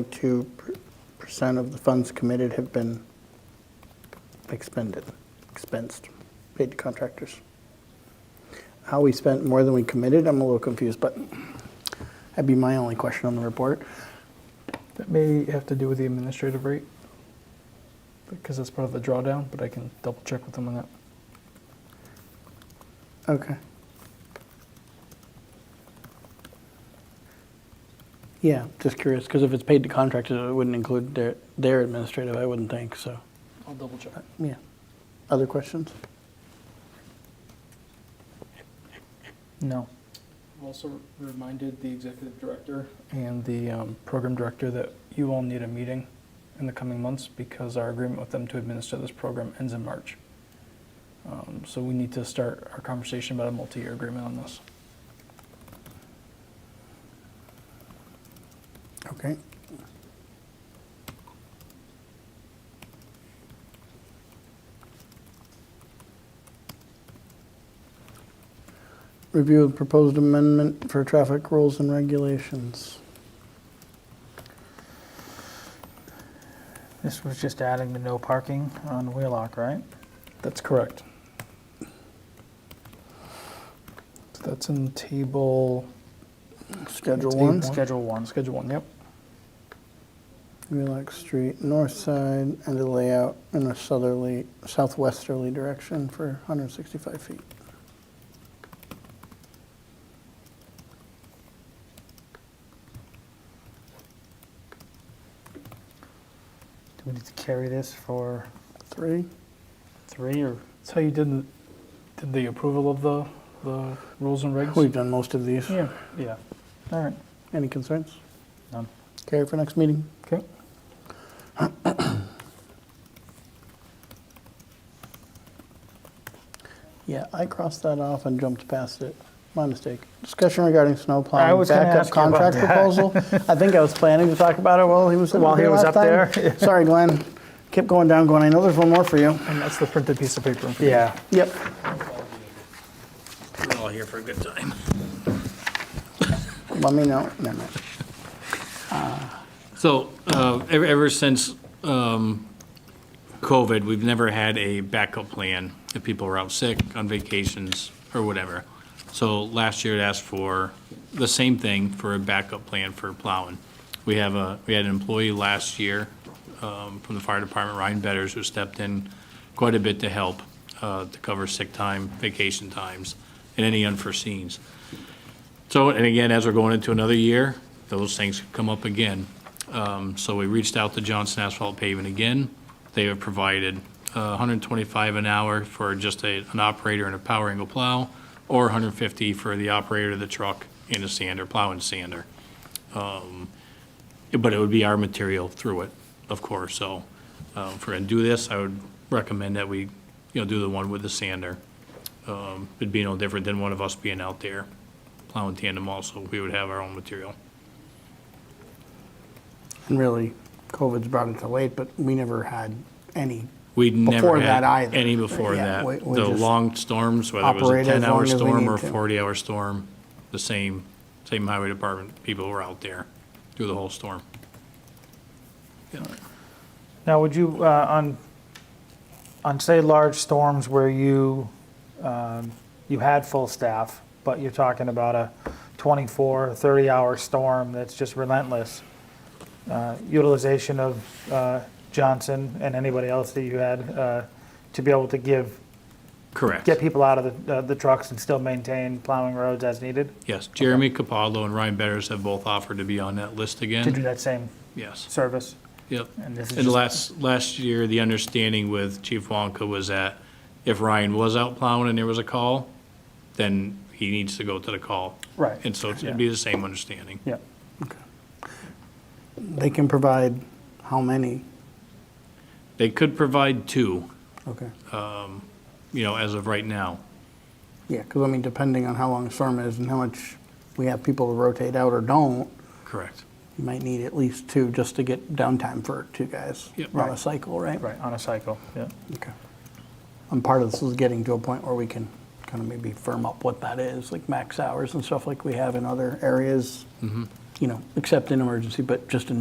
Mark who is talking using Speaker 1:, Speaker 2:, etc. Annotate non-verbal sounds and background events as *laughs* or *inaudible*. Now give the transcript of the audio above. Speaker 1: 72% of the funds committed have been expended, expensed, paid to contractors. How we spent more than we committed, I'm a little confused, but that'd be my only question on the report.
Speaker 2: That may have to do with the administrative rate, because that's part of the drawdown, but I can double check with them on that.
Speaker 1: Okay. Yeah, just curious, because if it's paid to contractors, it wouldn't include their, their administrative, I wouldn't think, so,
Speaker 2: I'll double check.
Speaker 1: yeah. Other questions?
Speaker 2: No. I'm also reminded the executive director and the um, program director that you all need a meeting in the coming months because our agreement with them to administer this program ends in March. Um, So we need to start our conversation about a multi-year agreement on this.
Speaker 1: Okay. Review of proposed amendment for traffic rules and regulations.
Speaker 3: This was just adding the no parking on Wheelock, right?
Speaker 2: That's correct. So that's in table,
Speaker 1: Schedule
Speaker 2: It's
Speaker 1: one,
Speaker 2: One.
Speaker 3: Schedule one.
Speaker 2: schedule one, yep.
Speaker 1: Relax Street, north side, and a layout in a southerly, southwesterly direction for 165 feet.
Speaker 3: Do we need to carry this for
Speaker 1: Three?
Speaker 3: three or?
Speaker 2: That's how you did, the- did the approval of the, the rules and regs?
Speaker 1: We've done most of these.
Speaker 2: Yeah, yeah.
Speaker 3: All right.
Speaker 1: Any concerns?
Speaker 3: None.
Speaker 1: Carry for next meeting?
Speaker 2: Okay.
Speaker 1: Yeah, I crossed that off and jumped past it. My mistake. Discussion regarding snow
Speaker 3: I
Speaker 1: plowing
Speaker 3: was gonna
Speaker 1: backup
Speaker 3: ask you about
Speaker 1: contract
Speaker 3: that.
Speaker 1: proposal. I think I was planning to talk about it while he was
Speaker 3: While
Speaker 1: up
Speaker 3: he
Speaker 1: there
Speaker 3: was
Speaker 1: last
Speaker 3: up
Speaker 1: time.
Speaker 3: *laughs* there?
Speaker 1: Sorry, Glenn. Kept going down, going, I know there's one more for you.
Speaker 2: And that's the printed piece of paper.
Speaker 3: Yeah.
Speaker 1: Yep.
Speaker 4: We're all here for a good time.
Speaker 1: Let me know. Never mind.
Speaker 4: So, uh, ever, ever since um, COVID, we've never had a backup plan if people were out sick, on vacations, or whatever. So last year it asked for the same thing for a backup plan for plowing. We have a, we had an employee last year um, from the fire department, Ryan Betters, who stepped in quite a bit to help uh, to cover sick time, vacation times, and any unforeseens. So, and again, as we're going into another year, those things could come up again. Um, So we reached out to Johnson Asphalt Paving again. They have provided uh, 125 an hour for just a, an operator and a power angle plow, or 150 for the operator, the truck, and a sander, plow and sander. Um, But it would be our material through it, of course, so uh, if we're going to do this, I would recommend that we, you know, do the one with the sander. Um, It'd be no different than one of us being out there plowing tandem also, we would have our own material.
Speaker 1: And really, COVID's brought it to late, but we never had any
Speaker 4: We'd never
Speaker 1: Before that
Speaker 4: had
Speaker 1: either.
Speaker 4: any before
Speaker 1: Yeah,
Speaker 4: that.
Speaker 1: we- we
Speaker 4: The
Speaker 1: just
Speaker 4: long storms, whether it was a
Speaker 1: operate as long
Speaker 4: ten-hour
Speaker 1: as we
Speaker 4: storm
Speaker 1: need
Speaker 4: or a
Speaker 1: to.
Speaker 4: forty-hour storm, the same, same highway department people were out there through the whole storm.
Speaker 3: Now, would you, uh, on, on say large storms where you, um, you had full staff, but you're talking about a 24, 30-hour storm that's just relentless, uh, utilization of uh, Johnson and anybody else that you had uh, to be able to give,
Speaker 4: Correct.
Speaker 3: get people out of the, uh, the trucks and still maintain plowing roads as needed?
Speaker 4: Yes, Jeremy Capaldo and Ryan Betters have both offered to be on that list
Speaker 3: To do
Speaker 4: again.
Speaker 3: that same
Speaker 4: Yes,
Speaker 3: service?
Speaker 4: yep.
Speaker 3: And this is
Speaker 4: And
Speaker 3: just-
Speaker 4: last, last year, the understanding with Chief Wonka was that if Ryan was out plowing and there was a call, then he needs to go to the call.
Speaker 3: Right.
Speaker 4: And so it'd be the same understanding.
Speaker 3: Yeah.
Speaker 1: They can provide how many?
Speaker 4: They could provide two,
Speaker 1: Okay.
Speaker 4: Uh, you know, as of right now.
Speaker 1: Yeah, because I mean, depending on how long the storm is and how much we have people to rotate out or don't,
Speaker 4: Correct.
Speaker 1: you might need at least two just to get downtime for two guys
Speaker 4: Yep.
Speaker 1: on a
Speaker 4: Right.
Speaker 1: cycle, right?
Speaker 3: Right, on a cycle, yeah.
Speaker 1: Okay. And part of this is getting to a point where we can kind of maybe firm up what that is, like max hours and stuff like we have in other areas. You know, except in emergency, but just in